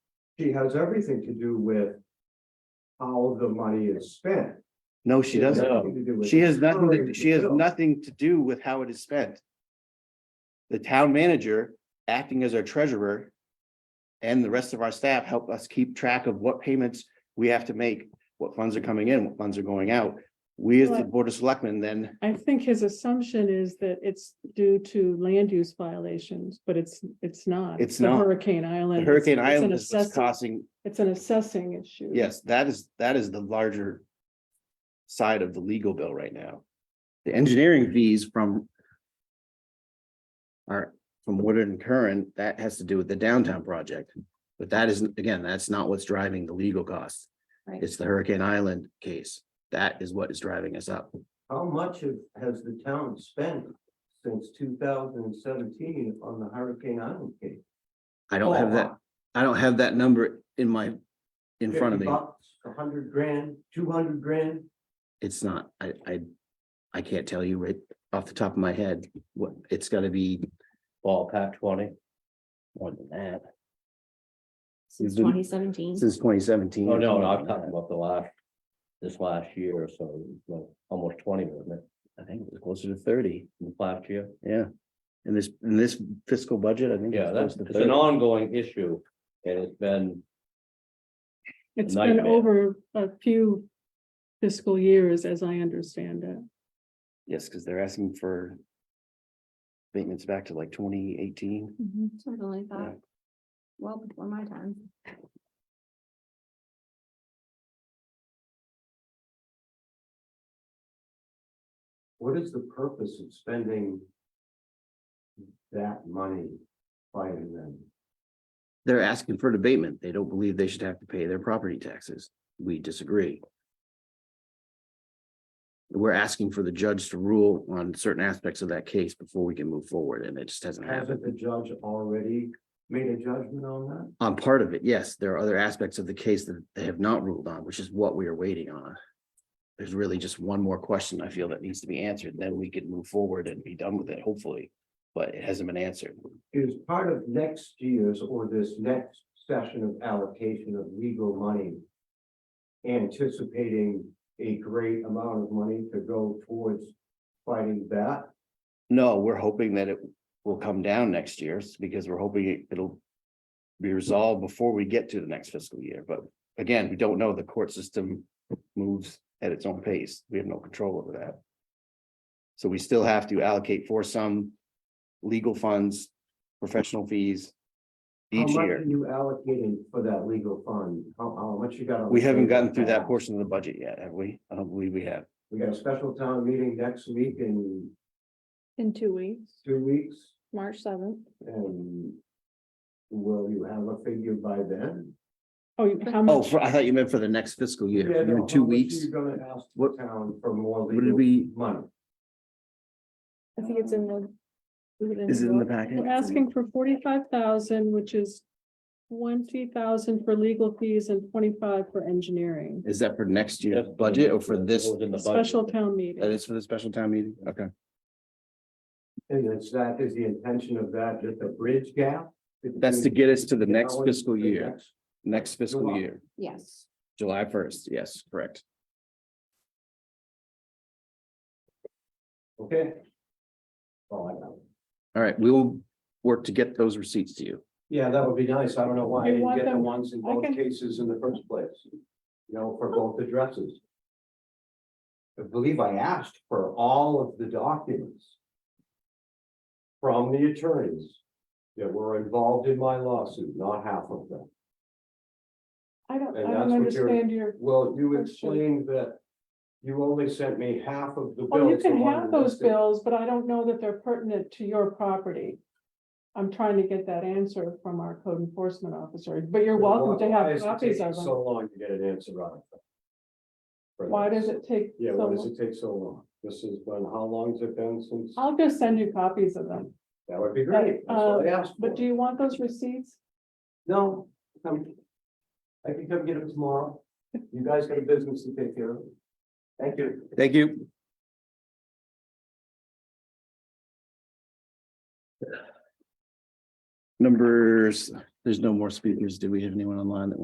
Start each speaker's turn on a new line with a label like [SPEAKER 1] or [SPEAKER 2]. [SPEAKER 1] she has everything to do with how the money is spent.
[SPEAKER 2] No, she doesn't.
[SPEAKER 1] Nothing to do with
[SPEAKER 2] She has nothing, to-
[SPEAKER 1] coloring
[SPEAKER 2] she has
[SPEAKER 1] the bill.
[SPEAKER 2] nothing to do with how it is spent. The town manager, acting as our treasurer. And the rest of our staff help us keep track of what payments we have to make, what funds are coming in, what funds are going out. We as the
[SPEAKER 3] Well-
[SPEAKER 2] board of selectmen then,
[SPEAKER 3] I think his assumption is that it's due to land use violations, but it's, it's not.
[SPEAKER 2] It's
[SPEAKER 3] the
[SPEAKER 2] not.
[SPEAKER 3] Hurricane
[SPEAKER 2] the
[SPEAKER 3] Island.
[SPEAKER 2] Hurricane
[SPEAKER 3] It's- it's an
[SPEAKER 2] Island is what's
[SPEAKER 3] assessing-
[SPEAKER 2] costing,
[SPEAKER 3] It's an assessing issue.
[SPEAKER 2] yes, that is, that is the larger. Side of the legal bill right now. The engineering fees from. Are from Woodard and Curran, that has to do with the downtown project. But that isn't, again, that's not what's driving the legal costs.
[SPEAKER 3] Right.
[SPEAKER 2] It's the Hurricane Island case. That is what is driving us up.
[SPEAKER 1] How much of- has the town spent since two thousand and seventeen on the Hurricane Island case?
[SPEAKER 2] I don't have that, I don't have that number in my, in front of me.
[SPEAKER 1] A hundred grand, two hundred grand,
[SPEAKER 2] It's not, I, I, I can't tell you right off the top of my head, what, it's gotta be ballpark twenty. More than that,
[SPEAKER 4] Since
[SPEAKER 2] been-
[SPEAKER 4] twenty seventeen.
[SPEAKER 2] since twenty seventeen.
[SPEAKER 5] Oh, no, no, I'm talking about the last, this last year or so, it was like almost twenty, wasn't it,
[SPEAKER 2] I think it was closer to thirty,
[SPEAKER 5] in the last year?
[SPEAKER 2] yeah. In this, in this fiscal budget, I think. it's
[SPEAKER 5] Yeah, that's,
[SPEAKER 2] close to
[SPEAKER 5] it's an
[SPEAKER 2] 30.
[SPEAKER 5] ongoing issue, and it's been,
[SPEAKER 3] It's been
[SPEAKER 5] nightmare.
[SPEAKER 3] over a few fiscal years, as I understand it.
[SPEAKER 2] Yes, because they're asking for. Statements back to like twenty eighteen.
[SPEAKER 4] Something like that. Well, before my time.
[SPEAKER 1] what is the purpose of spending? That money fighting them?
[SPEAKER 2] They're asking for debatement. They don't believe they should have to pay their property taxes. We disagree. We're asking for the judge to rule on certain aspects of that case before we can move forward, and it just hasn't happened.
[SPEAKER 1] Hasn't the judge already made a judgment on that?
[SPEAKER 2] On part of it, yes, there are other aspects of the case that they have not ruled on, which is what we are waiting on. There's really just one more question I feel that needs to be answered, then we could move forward and be done with it, hopefully. But it hasn't been answered.
[SPEAKER 1] Is part of next year's or this next session of allocation of legal money? Anticipating a great amount of money to go towards fighting that?
[SPEAKER 2] No, we're hoping that it will come down next year s- because we're hoping it- it'll. Be resolved before we get to the next fiscal year, but again, we don't know. The court system moves at its own pace. We have no control over that. So we still have to allocate for some legal funds, professional fees.
[SPEAKER 1] How
[SPEAKER 2] Each
[SPEAKER 1] much
[SPEAKER 2] year.
[SPEAKER 1] Are you allocating for that legal fund? How, how much you got? on
[SPEAKER 2] We
[SPEAKER 1] the
[SPEAKER 2] haven't
[SPEAKER 1] table?
[SPEAKER 2] gotten through that portion of the budget yet, have we? I don't believe we have.
[SPEAKER 1] We got a special town meeting next week in
[SPEAKER 3] In two weeks,
[SPEAKER 1] two weeks
[SPEAKER 3] March seventh.
[SPEAKER 1] and will you have a figure by then?
[SPEAKER 3] Oh, you- how
[SPEAKER 2] Oh,
[SPEAKER 3] much?
[SPEAKER 2] for- I thought you meant for the next fiscal year,
[SPEAKER 1] Yeah, no,
[SPEAKER 2] in
[SPEAKER 1] how
[SPEAKER 2] two
[SPEAKER 1] much
[SPEAKER 2] weeks.
[SPEAKER 1] You're gonna ask the
[SPEAKER 2] What-
[SPEAKER 1] town for more
[SPEAKER 2] What did
[SPEAKER 1] legal
[SPEAKER 2] we,
[SPEAKER 1] money.
[SPEAKER 4] I think it's in the.
[SPEAKER 2] is it in the packet?
[SPEAKER 3] We're asking for forty-five thousand, which is twenty thousand for legal fees and twenty-five for engineering.
[SPEAKER 2] Is that for next year's
[SPEAKER 5] that's been-
[SPEAKER 2] budget or for this?
[SPEAKER 5] It was in the
[SPEAKER 3] Special
[SPEAKER 5] budget,
[SPEAKER 3] town
[SPEAKER 2] That
[SPEAKER 3] meeting.
[SPEAKER 2] is for the special town meeting? Okay.
[SPEAKER 1] And it's that is the intention of that, just a bridge gap?
[SPEAKER 2] That's to
[SPEAKER 1] between
[SPEAKER 2] get us to the
[SPEAKER 1] now
[SPEAKER 2] next
[SPEAKER 1] and
[SPEAKER 2] fiscal
[SPEAKER 1] the
[SPEAKER 2] year,
[SPEAKER 1] next-
[SPEAKER 2] next fiscal
[SPEAKER 1] July.
[SPEAKER 2] year,
[SPEAKER 4] Yes,
[SPEAKER 2] July first. Yes, correct.
[SPEAKER 1] Okay. Oh, I got it.
[SPEAKER 2] All right, we will work to get those receipts to you.
[SPEAKER 1] Yeah, that would be nice. I don't know why I
[SPEAKER 3] You
[SPEAKER 1] didn't
[SPEAKER 3] want
[SPEAKER 1] get the
[SPEAKER 3] them-
[SPEAKER 1] ones in
[SPEAKER 3] I
[SPEAKER 1] both
[SPEAKER 3] can-
[SPEAKER 1] cases in the first place. You know, for both addresses. I believe I asked for all of the documents. From the attorneys that were involved in my lawsuit, not half of them.
[SPEAKER 3] I don't, I
[SPEAKER 1] And
[SPEAKER 3] don't
[SPEAKER 1] that's what you're-
[SPEAKER 3] understand your
[SPEAKER 1] Well, you
[SPEAKER 3] Okay.
[SPEAKER 1] explained that you only sent me half of the bills.
[SPEAKER 3] Well, Oh, you
[SPEAKER 1] the
[SPEAKER 3] can
[SPEAKER 1] one
[SPEAKER 3] have those
[SPEAKER 1] listed.
[SPEAKER 3] bills, but I don't know that they're pertinent to your property. I'm trying to get that answer from our code enforcement officer, but you're welcome to
[SPEAKER 1] Why
[SPEAKER 3] have
[SPEAKER 1] is it
[SPEAKER 3] copies
[SPEAKER 1] taking
[SPEAKER 3] of them.
[SPEAKER 1] So long to get an answer out of them. For
[SPEAKER 3] Why
[SPEAKER 1] this?
[SPEAKER 3] does it take?
[SPEAKER 1] Yeah,
[SPEAKER 3] so
[SPEAKER 1] why does
[SPEAKER 3] long?
[SPEAKER 1] it take so long? This has been, how long's it been since?
[SPEAKER 3] I'll just send you copies of them,
[SPEAKER 1] That would be great. That's
[SPEAKER 3] uh,
[SPEAKER 1] what I asked
[SPEAKER 3] but do
[SPEAKER 1] for.
[SPEAKER 3] you want those receipts?
[SPEAKER 1] No, come. I can come get them tomorrow. You guys got a business to take care of. Thank you.
[SPEAKER 2] Thank you. Numbers, There's no more speakers. Do we have anyone online that